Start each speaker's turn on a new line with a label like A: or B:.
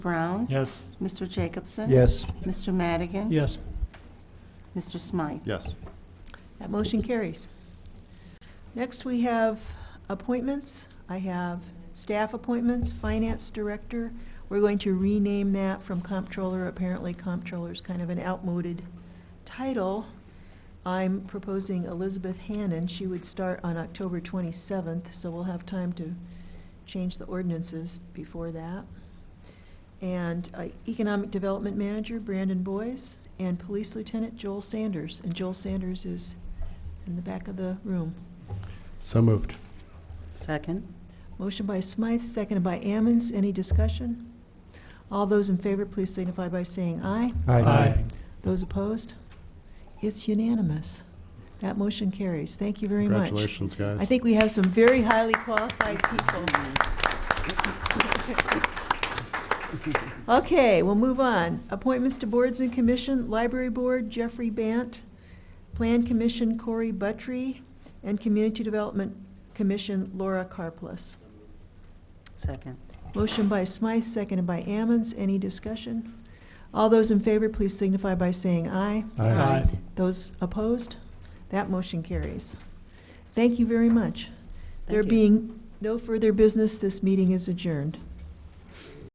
A: Brown?
B: Yes.
A: Mr. Jacobson?
C: Yes.
A: Mr. Madigan?
B: Yes.
A: Mr. Smythe?
D: Yes.
E: That motion carries. Next, we have appointments. I have staff appointments, finance director. We're going to rename that from comptroller. Apparently comptroller's kind of an outmoded title. I'm proposing Elizabeth Hannon. She would start on October 27th, so we'll have time to change the ordinances before that. And uh, Economic Development Manager Brandon Boyce, and Police Lieutenant Joel Sanders. And Joel Sanders is in the back of the room.
D: So moved.
A: Second?
E: Motion by Smythe, seconded by Ammons. Any discussion? All those in favor, please signify by saying aye. Those opposed? It's unanimous. That motion carries. Thank you very much.
D: Congratulations, guys.
E: I think we have some very highly qualified people. Okay, we'll move on. Appointments to boards and commission, Library Board, Jeffrey Bant, Plan Commission, Corey Buttry, and Community Development Commission, Laura Carplus.
A: Second.
E: Motion by Smythe, seconded by Ammons. Any discussion? All those in favor, please signify by saying aye.
A: Aye.
E: Those opposed? That motion carries. Thank you very much. There
A: Thank you.
E: being no further business, this meeting is adjourned.